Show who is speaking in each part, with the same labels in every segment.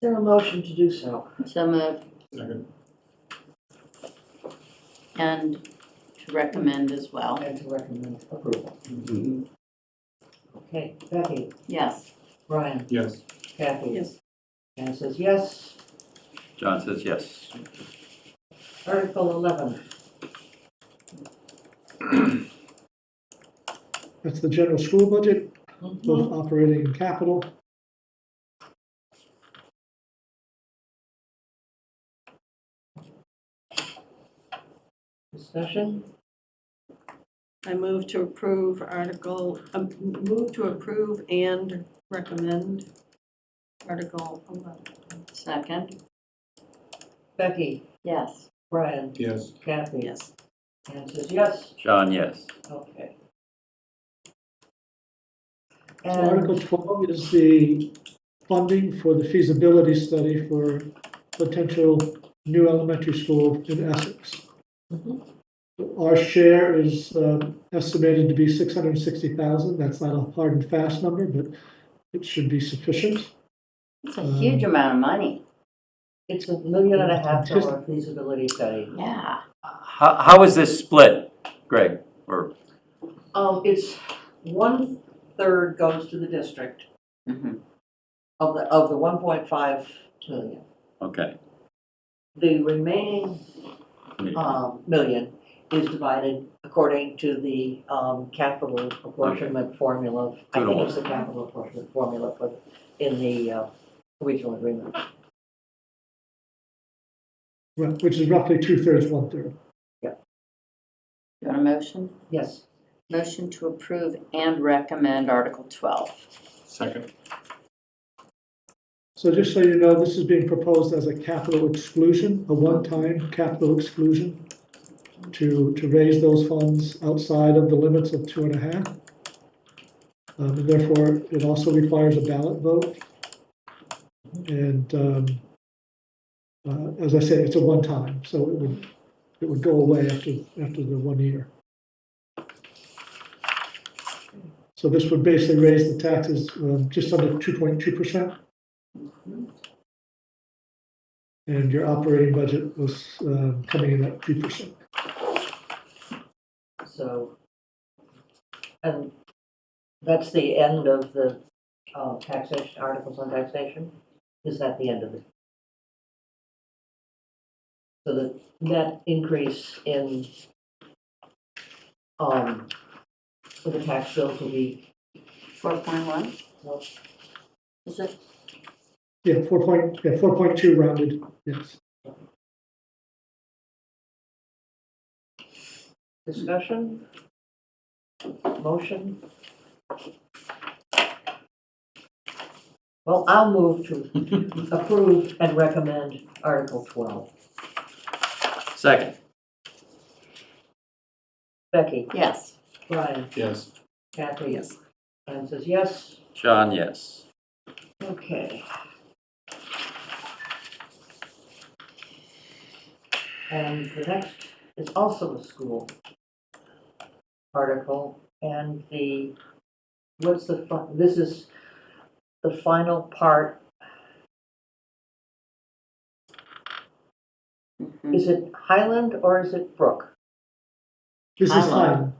Speaker 1: there a motion to do so?
Speaker 2: So moved.
Speaker 3: Second.
Speaker 2: And to recommend as well.
Speaker 1: And to recommend approval. Okay, Becky,
Speaker 2: Yes.
Speaker 1: Brian,
Speaker 3: Yes.
Speaker 1: Kathy. Yes. Anne says yes.
Speaker 4: John says yes.
Speaker 1: Article 11,
Speaker 5: That's the general school budget,
Speaker 1: Mhm.
Speaker 2: Mm-hmm.
Speaker 5: both operating and capital.
Speaker 1: discussion,
Speaker 6: I move to approve Article, um, move to approve and recommend Article 11.
Speaker 2: Second?
Speaker 1: Becky,
Speaker 2: Yes.
Speaker 1: Brian,
Speaker 3: Yes.
Speaker 1: Kathy.
Speaker 6: Yes.
Speaker 1: Anne says yes,
Speaker 4: John, yes.
Speaker 1: okay.
Speaker 5: So
Speaker 1: And
Speaker 5: Article 12 is the funding for the feasibility study for potential new elementary school in Essex.
Speaker 1: Mhm.
Speaker 5: Our share is uh, estimated to be 660,000. That's not a hard and fast number, but it should be sufficient.
Speaker 2: It's a huge amount of money.
Speaker 1: it's a million and a half dollar feasibility study.
Speaker 2: Yeah.
Speaker 4: How, how is this split, Greg? Or,
Speaker 1: Um, it's one-third goes to the district
Speaker 2: Mhm.
Speaker 1: of the, of the 1.5 million.
Speaker 4: okay.
Speaker 1: The remaining
Speaker 2: Uh,
Speaker 1: um, million is divided according to the um, capital apportionment formula. I think it's the capital apportionment formula for, in the uh, regional agreement.
Speaker 5: Right, Which is roughly two-thirds, one-third.
Speaker 2: You want a motion?
Speaker 1: Yes,
Speaker 2: Motion to approve and recommend Article 12.
Speaker 3: Second.
Speaker 5: So just so you know, this is being proposed as a capital exclusion, a one-time capital exclusion to, to raise those funds outside of the limits of two and a half. Um, and therefore, it also requires a ballot vote. And, um, uh, as I said, it's a one-time, so it would, it would go away after, after the one year. So this would basically raise the taxes, um, just under two point two percent. And your operating budget was um, coming in at three percent.
Speaker 1: so, and that's the end of the uh, taxation, articles on taxation? Is that the end of it? So the net increase in, um, for the tax bills will be,
Speaker 2: 4.1?
Speaker 1: well,
Speaker 2: Is it?
Speaker 5: Yeah, four point, yeah, four point two rounded, yes.
Speaker 1: Discussion? Motion? Well, I'll move to approve and recommend Article 12.
Speaker 4: Second,
Speaker 1: Becky?
Speaker 2: Yes.
Speaker 1: Brian?
Speaker 3: Yes.
Speaker 1: Kathy?
Speaker 6: Yes.
Speaker 1: Anne says yes.
Speaker 4: John, yes.
Speaker 1: Okay. And the next is also a school article, and the, what's the, fi- this is the final part,
Speaker 2: Mhm.
Speaker 1: is it Highland or is it Brook?
Speaker 5: This is
Speaker 2: Highland.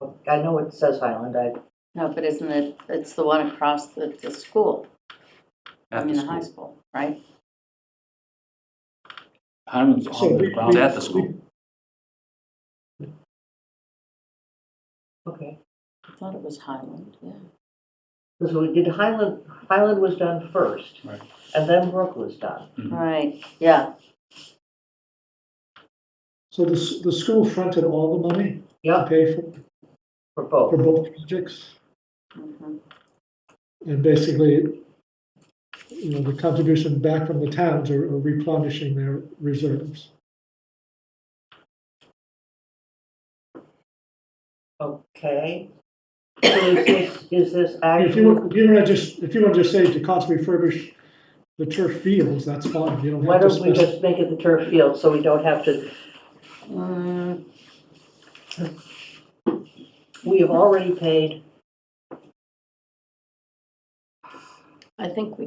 Speaker 5: Highland,
Speaker 1: I know it says Highland, I,
Speaker 2: No, but isn't it, it's the one across the, the school, I
Speaker 4: At
Speaker 2: mean,
Speaker 4: the
Speaker 2: the high
Speaker 4: school.
Speaker 2: school, right?
Speaker 3: Hyman's
Speaker 5: So
Speaker 3: on the
Speaker 5: we-
Speaker 3: ground.
Speaker 5: we-
Speaker 4: At the school.
Speaker 1: okay.
Speaker 2: I thought it was Highland, yeah.
Speaker 1: Because we did Highland, Highland was done first,
Speaker 3: Right.
Speaker 1: and then Brook was done.
Speaker 3: Mhm.
Speaker 2: Right, yeah.
Speaker 5: so the, s- the school fronted all the money to
Speaker 1: Yep,
Speaker 5: pay for,
Speaker 1: for
Speaker 5: for
Speaker 1: both.
Speaker 5: both projects.
Speaker 2: Mhm.
Speaker 5: And basically, you know, the contribution back from the towns are are replenishing their reserves.
Speaker 1: Okay. So is this, is this
Speaker 5: If you,
Speaker 1: actual,
Speaker 5: if you want to just, if you want to just say to cost refurbish the turf fields, that's fine, you don't
Speaker 1: why
Speaker 5: have to
Speaker 1: don't we
Speaker 5: specify.
Speaker 1: just make it the turf field so we don't have to,
Speaker 2: Mm,
Speaker 1: we have already paid
Speaker 2: I think we